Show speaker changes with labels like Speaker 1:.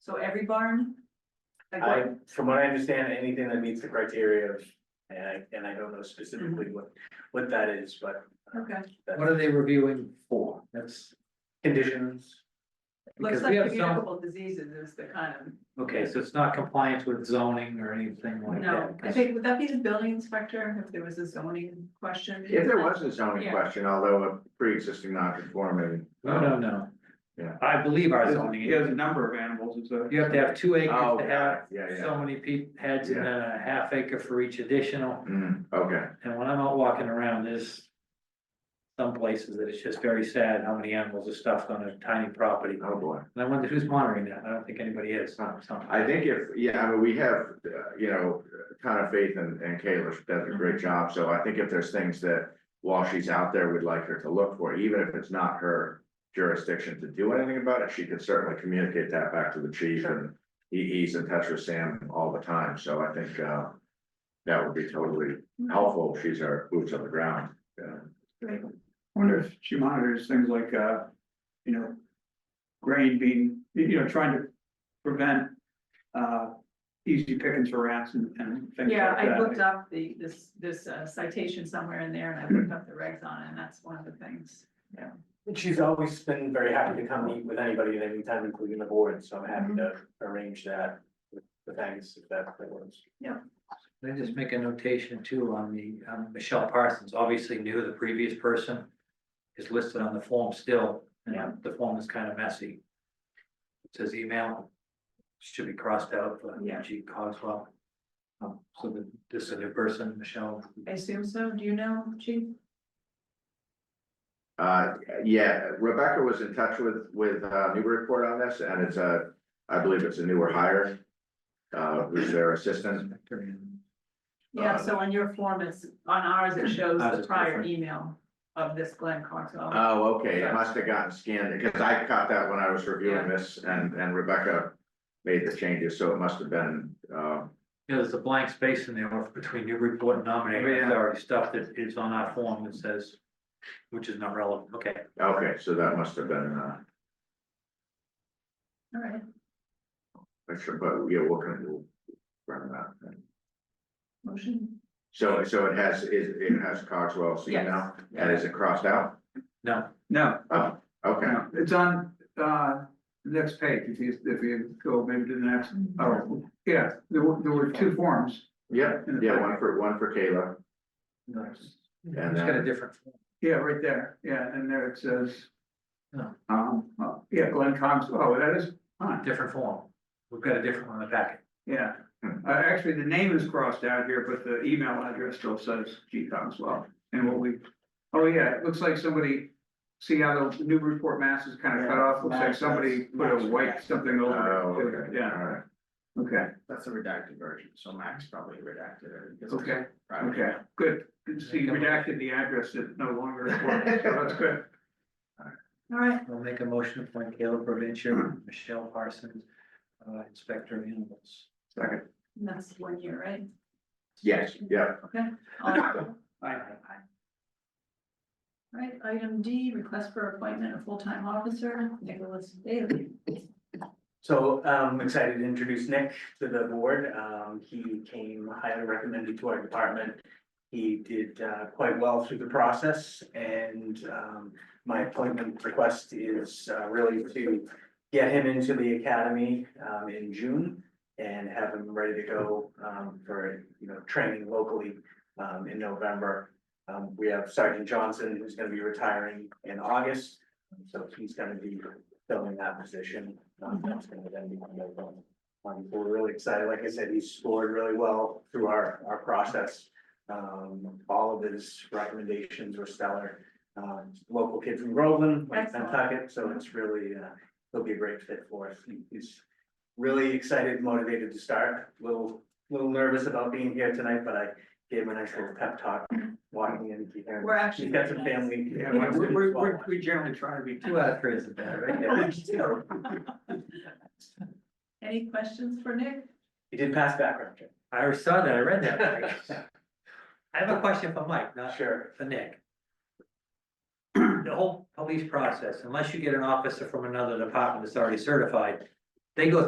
Speaker 1: So every barn? like
Speaker 2: I,
Speaker 1: what-
Speaker 2: from what I understand, anything that meets the criteria of, and I, and I don't know specifically what, what that is, but. uh,
Speaker 1: Mhm. Okay,
Speaker 2: that's-
Speaker 3: What are they reviewing for? That's,
Speaker 2: Conditions,
Speaker 1: looks
Speaker 3: because
Speaker 1: like
Speaker 3: we have some,
Speaker 1: communicable diseases is the kind of.
Speaker 3: okay, so it's not compliance with zoning or anything like
Speaker 1: No,
Speaker 3: that.
Speaker 1: I think, would that be the building inspector if there was a zoning question?
Speaker 4: If there was a zoning
Speaker 1: Yeah.
Speaker 4: question, although a pre-existing non-conforming.
Speaker 3: No, no, no.
Speaker 4: Yeah.
Speaker 3: I believe our zoning,
Speaker 5: He has a
Speaker 3: you
Speaker 5: number of animals, it's a.
Speaker 3: have to have two acres
Speaker 4: Oh,
Speaker 3: to have
Speaker 4: yeah, yeah.
Speaker 3: so many pe- heads and then a half acre for each additional.
Speaker 4: Mm, okay,
Speaker 3: And when I'm out walking around, there's some places that it's just very sad how many animals are stuffed on a tiny property.
Speaker 4: oh boy.
Speaker 3: And I wonder who's monitoring that? I don't think anybody is. so-
Speaker 4: I think if, yeah, I mean, we have, uh, you know, a ton of faith in, in Kayla, she does a great job, so I think if there's things that. While she's out there, we'd like her to look for, even if it's not her jurisdiction to do anything about it, she could certainly communicate that back to the chief and. He, he's in touch with Sam all the time, so I think, uh. That would be totally helpful, if she's our boots on the ground, yeah.
Speaker 5: I wonder if she monitors things like, uh, you know, grain being, you know, trying to prevent, uh, easy pickings for rats and, and things like that.
Speaker 1: Yeah, I looked up the, this, this uh, citation somewhere in there and I looked up the regs on it and that's one of the things.
Speaker 2: she's always been very happy to come meet with anybody at any time, including the board, so I'm happy to
Speaker 1: Mhm.
Speaker 2: arrange that. with The thanks, if that works.
Speaker 3: Can I just make a notation too on the, um, Michelle Parsons obviously knew the previous person is listed on the form still,
Speaker 1: Yeah.
Speaker 3: and the form is kind of messy. It says email, should be crossed out for
Speaker 1: Yeah.
Speaker 3: G Cogswell. Um, so that this is a new person, Michelle,
Speaker 1: I assume so. Do you know, chief?
Speaker 4: Uh, yeah, Rebecca was in touch with, with, uh, Newburyport on this, and it's a, I believe it's a newer hire. Uh, who's their assistant,
Speaker 3: Inspector and
Speaker 1: Yeah,
Speaker 4: Uh,
Speaker 1: so on your form, it's, on ours, it shows
Speaker 3: Ours
Speaker 1: the
Speaker 3: is
Speaker 1: prior
Speaker 3: different.
Speaker 1: email of this Glenn Coxwell.
Speaker 4: oh, okay, it must have gotten scanned, because I caught that when I was reviewing this, and, and Rebecca. Made the changes, so it must have been, uh,
Speaker 3: Yeah, there's a blank space in there between new report and
Speaker 1: Oh,
Speaker 3: nominating
Speaker 5: Yeah.
Speaker 3: authority stuff that is on our form that says, which is not relevant, okay.
Speaker 4: okay, so that must have been, uh,
Speaker 1: All right,
Speaker 4: extra, but yeah, we'll kind of. Run that,
Speaker 1: motion?
Speaker 4: so, so it has, it, it has Cogswell's
Speaker 1: Yes.
Speaker 4: email, and is it crossed out?
Speaker 3: No,
Speaker 5: No,
Speaker 4: Oh, okay,
Speaker 5: no, it's on, uh, the next page, if you, if you go maybe to the next, oh, yeah, there were, there were two forms.
Speaker 4: yeah, yeah, one for, one for Kayla. And
Speaker 3: it's got a
Speaker 4: then-
Speaker 3: different form.
Speaker 5: Yeah, right there, yeah, and there it says.
Speaker 3: No.
Speaker 5: Um, oh, yeah, Glenn Cox, oh, that is, fine.
Speaker 3: different form. We've got a different one in the packet.
Speaker 5: yeah,
Speaker 4: Hmm.
Speaker 5: uh, actually, the name is crossed out here, but the email address still says G Cogswell, and what we. Oh, yeah, it looks like somebody, see how the Newburyport, Mass is kind of cut off, looks like somebody put a white something
Speaker 4: Oh,
Speaker 5: over it,
Speaker 4: okay,
Speaker 5: too. yeah,
Speaker 4: all right.
Speaker 5: okay,
Speaker 6: That's the redacted version, so Max probably redacted it. because it's
Speaker 5: okay,
Speaker 6: private.
Speaker 5: okay, good, good to see you redacted the address that no longer, works, so that's good.
Speaker 1: All right,
Speaker 3: I'll make a motion to appoint Caleb Provencher, Michelle Parsons, uh, Inspector of Animals.
Speaker 5: Second,
Speaker 1: and that's one year, right?
Speaker 4: Yes, yeah,
Speaker 1: Okay. All in favor?
Speaker 5: Aye.
Speaker 1: All Right, item D, request for appointment of full-time officer, Nicholas Bailey.
Speaker 2: So um excited to introduce Nick to the board. Um he came highly recommended to our department. He did uh quite well through the process and um my appointment request is uh, really to get him into the academy um in June and have him ready to go um for, you know, training locally um in November. Um we have Sergeant Johnson who's gonna be retiring in August, so he's gonna be filling that position. Um, that's gonna then be one of them. Um, so we're really excited. Like I said, he scored really well through our, our process. Um, all of his recommendations were stellar. Um, local kid from Groveland, like
Speaker 1: Excellent.
Speaker 2: Nantucket, so it's really, uh, he'll be a great fit for us. He- He's really excited, motivated to start. Little, little nervous about being here tonight, but I gave him a nice little pep talk walking in here.
Speaker 1: We're actually.
Speaker 2: He's got some family.
Speaker 5: yeah, we, we, we, we generally try to be.
Speaker 3: Two out of three is the bad, right?
Speaker 2: Yeah, so
Speaker 1: Any questions for Nick?
Speaker 2: He did pass background check.
Speaker 3: I already saw that, I read that. Mike. I have a question for Mike, not
Speaker 2: Sure.
Speaker 3: for Nick. The whole police process, unless you get an officer from another department that's already certified, they go